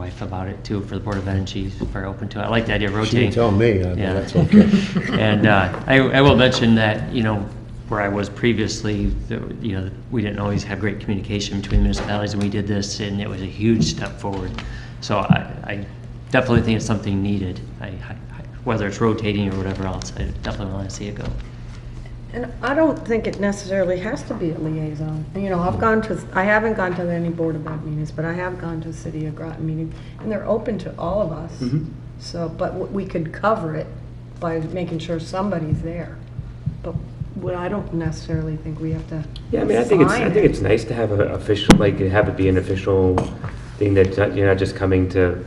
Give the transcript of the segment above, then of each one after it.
wife about it too, for the Board of Ed, and she's very open to it. I like the idea of She rotating. didn't tell me, I- Yeah. that's okay. And uh, I, I will mention that, you know, where I was previously, the- you know, we didn't always have great communication between municipalities, and we did this, and it was a huge step forward. So I, I definitely think it's something needed, I, I- whether it's rotating or whatever else, I definitely want to see it go. And I don't think it necessarily has to be a liaison. You know, I've gone to, I haven't gone to any Board of Ed meetings, but I have gone to City of Groton meetings, and they're open to all of us. Mm-hmm. So, but w- we could cover it by making sure somebody's there. But what I don't necessarily think we have to Yeah, I mean, I think it's, I sign think it. it's nice to have an official, like, have it be an official thing that uh, you're not just coming to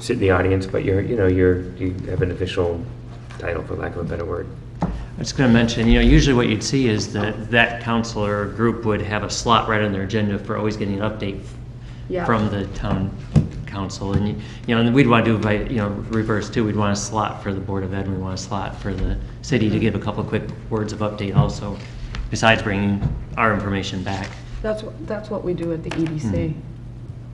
sit in the audience, but you're, you know, you're, you have an official title, for lack of a better word. I was going to mention, you know, usually what you'd see is that that counselor or group would have a slot right on their agenda for always getting an update Yeah. from the town council. And, you you know, and we'd want to do, by you know, reverse too, we'd want a slot for the Board of Ed, and we want a slot for the city to give a couple quick words of update also, besides bringing our information back. That's, what- that's what we do at the EDC. And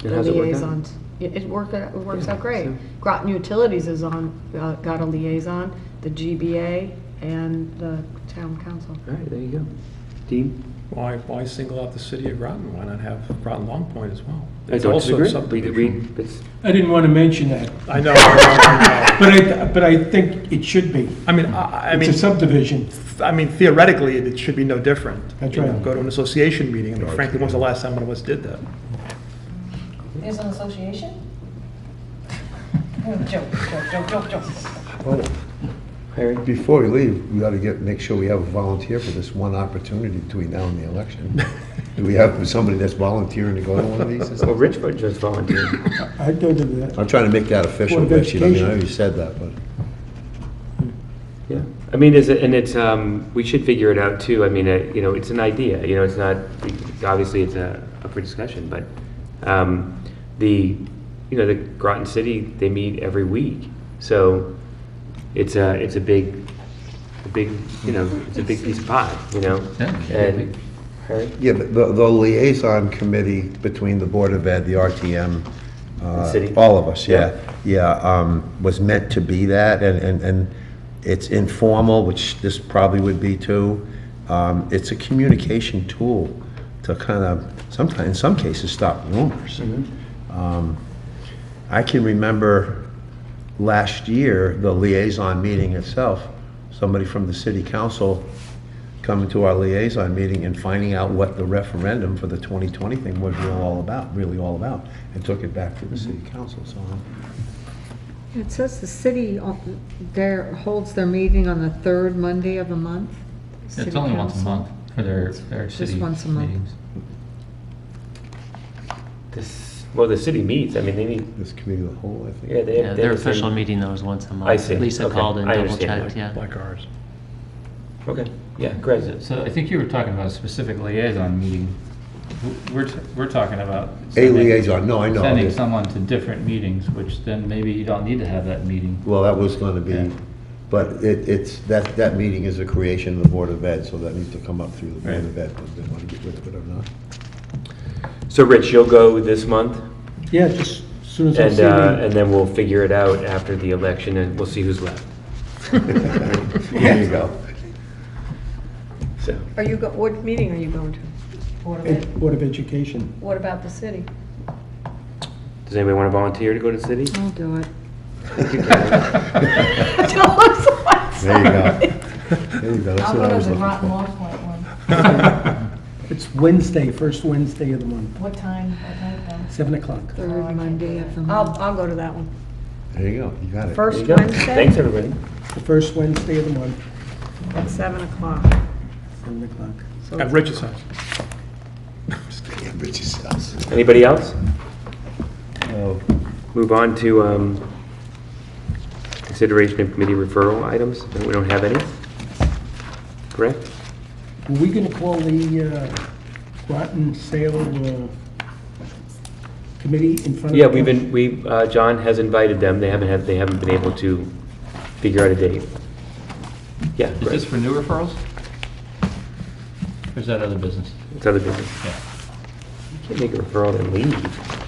the how's it work out? liaisons. It, it work, uh, it works out great. so- Groton Utilities is on, uh, got a liaison, the GBA and the town council. All right, there you go. Dean? Why, why single out the city of Groton? Why not have Groton Long Point as well? I It's don't also a disagree. We- we- subdivision. it's- I didn't want to mention that, I know, I know, I know. but I, but I think it should be. I mean, I, I mean, It's a subdivision. I mean theoretically, it should be no different. That's You know, right. Go to an association meeting, I mean frankly, when was the last time one of us did that? There's an association? Joke, joke, joke, joke, joke. Well, Harry? Before we leave, we ought to get, make sure we have a volunteer for this one opportunity between now and the election. Do we have somebody that's volunteering to go to one of these? Well, Rich would just volunteered. I'd go to that. I'm trying to make that official, Board of Betsy. I mean, I know Education. you said that, but. Yeah, I mean, is it, and it's, um, we should figure it out too. I mean, uh, you know, it's an idea, you know, it's not, obviously it's a, up for discussion, but, um, the, you know, the Groton City, they meet every week. So it's a, it's a big, a big, you know, it's a big piece of pie, you know? And, Harry? Yeah, but the, the liaison committee between the Board of Ed, the RTM, uh, city? all of us, yeah, Yeah. yeah, um, was meant to be that, and, and, and it's informal, which this probably would be too. Um, it's a communication tool to kind of, sometimes, in some cases, stop rumors. Um, I can remember last year, the liaison meeting itself, somebody from the city council coming to our liaison meeting and finding out what the referendum for the 2020 thing was real all about, really all about, and took it back to the city council, so. It says the city on- there holds their meeting on the third Monday of the month. It's City only once a council. month for their, their Just city once a month. meetings. This, well, the city meets, I mean, they meet, This committee of the whole, I yeah, think. they have. Yeah, they their have the same- official meeting though is once a month. I see. Lisa Okay. called and I double understand checked, now. yeah. Like ours. Okay, yeah, Greg. So I think you were talking about a specific liaison meeting. W- We're, t- we're talking about. A sending- liaison, no, I know. Sending someone to different meetings, which then maybe you don't need to have that meeting. Well, that was gonna Yeah. be, but it, it's, that, that meeting is a creation of the Board of Ed, so that needs to come up through the Board of Ed, whether they wanna get rid of it or not. So Rich, you'll go this month? Yeah, just as soon as I And, see uh, it. and then we'll figure it out after the election and we'll see who's left, There you go. so. Are you, go- what meeting are you going to? Board of Ed. Ed- Board of Education. What about the city? Does anybody want to volunteer to go to the city? I'll do it. There you go. There you go, that's I'll what I go was to the looking Groton for. Long Point one. It's Wednesday, first Wednesday of the month, What time, what night though? 7 o'clock. Oh, I Third can't Monday do it. of the I'll, month. I'll go to that one. There you go, you got it. There First you go. Thanks, Wednesday everybody. The first Wednesday of the month, at seven o'clock. 7 o'clock. So At Rich's house. Yeah, Rich's house. Anybody else? Oh, Move on to um, consideration of committee referral items. We don't have any, correct? Were we going to call the uh, Groton Sale uh, Committee in front of? Yeah, we've been, we, uh, John has invited them. They haven't had, they haven't been able to figure out a date. Yeah, Is this right. for new referrals? Or is that other business? It's other business. Yeah. You can't make a referral and leave.